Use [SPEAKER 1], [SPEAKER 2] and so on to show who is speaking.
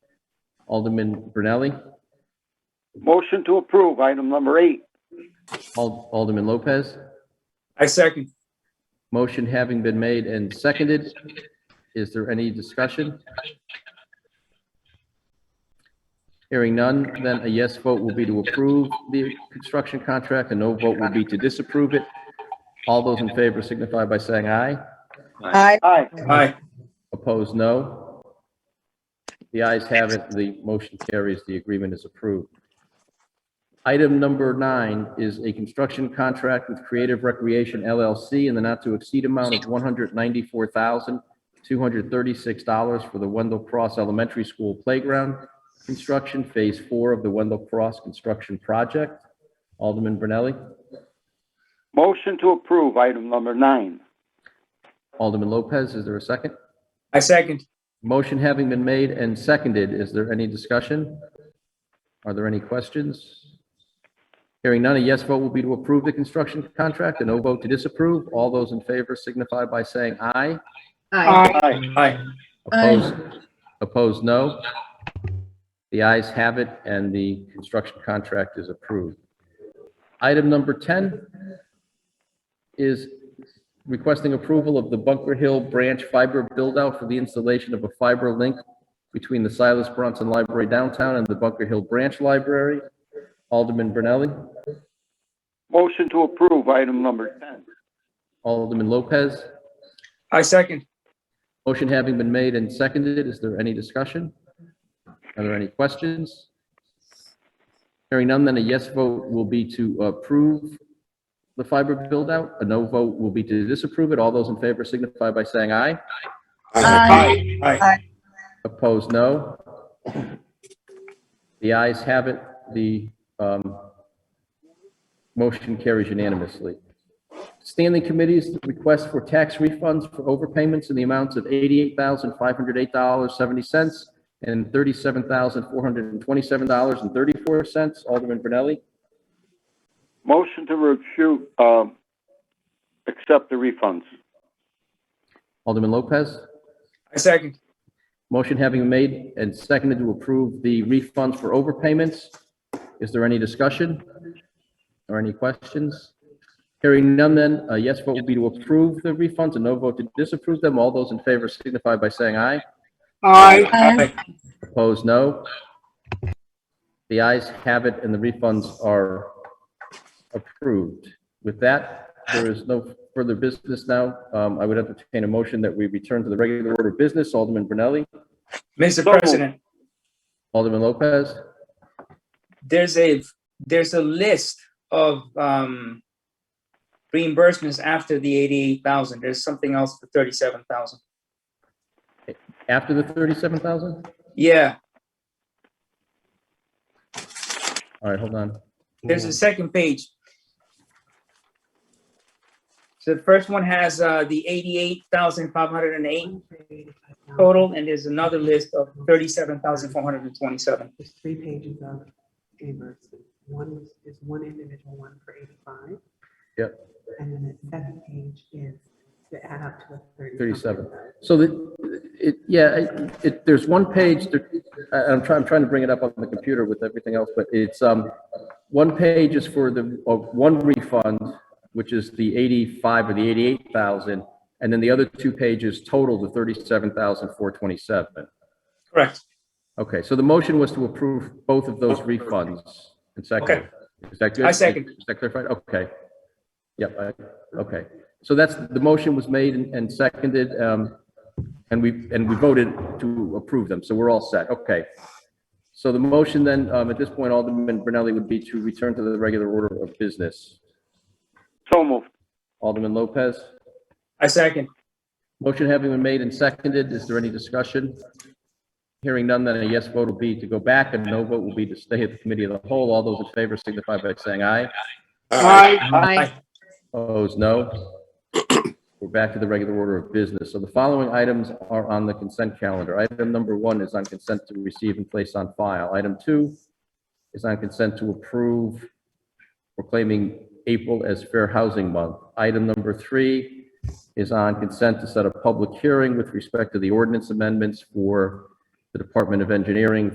[SPEAKER 1] Alderman Brunelli,
[SPEAKER 2] Motion to approve item number eight.
[SPEAKER 1] Ald- Alderman Lopez.
[SPEAKER 3] I second.
[SPEAKER 1] Motion having been made and seconded, is there any discussion? Hearing none, then a yes vote will be to approve the construction contract, a no vote will be to disapprove it. All those in favor signify by saying aye.
[SPEAKER 4] Aye.
[SPEAKER 2] Aye.
[SPEAKER 3] Aye.
[SPEAKER 1] Opposed, no. The ayes have it, the motion carries, the agreement is approved. Item number nine is a construction contract with Creative Recreation LLC in the not-to-exceed amount of $194,236 for the Wendell Cross Elementary School Playground Construction Phase 4 of the Wendell Cross Construction Project. Alderman Brunelli,
[SPEAKER 2] Motion to approve item number nine.
[SPEAKER 1] Alderman Lopez, is there a second?
[SPEAKER 3] I second.
[SPEAKER 1] Motion having been made and seconded, is there any discussion? Are there any questions? Hearing none, a yes vote will be to approve the construction contract, a no vote to disapprove. All those in favor signify by saying aye.
[SPEAKER 4] Aye.
[SPEAKER 2] Aye.
[SPEAKER 3] Aye.
[SPEAKER 4] Aye.
[SPEAKER 1] Opposed, opposed, no. The ayes have it, and the construction contract is approved. Item number 10 is requesting approval of the Bunker Hill Branch Fiber Buildout for the installation of a fiber link between the Silas Bronson Library downtown and the Bunker Hill Branch Library. Alderman Brunelli,
[SPEAKER 2] Motion to approve item number 10.
[SPEAKER 1] Alderman Lopez.
[SPEAKER 3] I second.
[SPEAKER 1] Motion having been made and seconded, is there any discussion? Are there any questions? Hearing none, then a yes vote will be to approve the fiber build-out. A no vote will be to disapprove it. All those in favor signify by saying aye.
[SPEAKER 4] Aye.
[SPEAKER 3] Aye.
[SPEAKER 1] Opposed, no. The ayes have it. The um, motion carries unanimously. Standing committees, the request for tax refunds for overpayments in the amounts of $88,508.70 and $37,427.34. Alderman Brunelli,
[SPEAKER 2] Motion to refute, um, accept the refunds.
[SPEAKER 1] Alderman Lopez.
[SPEAKER 3] I second.
[SPEAKER 1] Motion having been made and seconded to approve the refunds for overpayments. Is there any discussion or any questions? Hearing none then, a yes vote will be to approve the refunds, a no vote to disapprove them. All those in favor signify by saying aye.
[SPEAKER 4] Aye.
[SPEAKER 1] Opposed, no. The ayes have it and the refunds are approved. With that, there is no further business now. Um, I would entertain a motion that we return to the regular order of business. Alderman Brunelli,
[SPEAKER 2] So
[SPEAKER 3] Mr.
[SPEAKER 2] moved.
[SPEAKER 3] President,
[SPEAKER 1] Alderman Lopez.
[SPEAKER 3] there's a, there's a list of, um, reimbursements after the eighty-eight thousand. There's something else for thirty-seven thousand.
[SPEAKER 1] After the 37,000?
[SPEAKER 3] Yeah,
[SPEAKER 1] All right, hold on.
[SPEAKER 3] there's a second page. So the first one has, uh, the eighty-eight thousand five hundred and eight total, and there's another list of thirty-seven thousand four hundred and twenty-seven.
[SPEAKER 5] There's three pages of reimbursement. One is, is one individual, one for eighty-five.
[SPEAKER 1] Yep.
[SPEAKER 5] And then the second page is to add up to the thirty.
[SPEAKER 1] 37. So the, it, yeah, it- it, there's one page, that- I, I'm trying, I'm trying to bring it up on the computer with everything else, but it's, um, one page is for the, of one refund, which is the 85 or the 88,000, and then the other two pages total the 37,427.
[SPEAKER 3] Correct.
[SPEAKER 1] Okay, so the motion was to approve both of those refunds and second. Is that good?
[SPEAKER 3] I second.
[SPEAKER 1] Is that clarified? Okay. Yep, I- okay. So that's, the motion was made and and seconded, um, and we, and we voted to approve them, so we're all set, okay. So the motion then, um, at this point, Alderman Brunelli would be to return to the regular order of business.
[SPEAKER 2] So moved.
[SPEAKER 1] Alderman Lopez,
[SPEAKER 3] I second.
[SPEAKER 1] motion having been made and seconded, is there any discussion? Hearing none, then a yes vote will be to go back, and no vote will be to stay at the committee of the whole. All those in favor signify by saying aye.
[SPEAKER 4] Aye.
[SPEAKER 1] Opposed, no. We're back to the regular order of business. So the following items are on the consent calendar. Item number one is on consent to receive and place on file. Item two is on consent to approve proclaiming April as Fair Housing Month. Item number three is on consent to set a public hearing with respect to the ordinance amendments for the Department of Engineering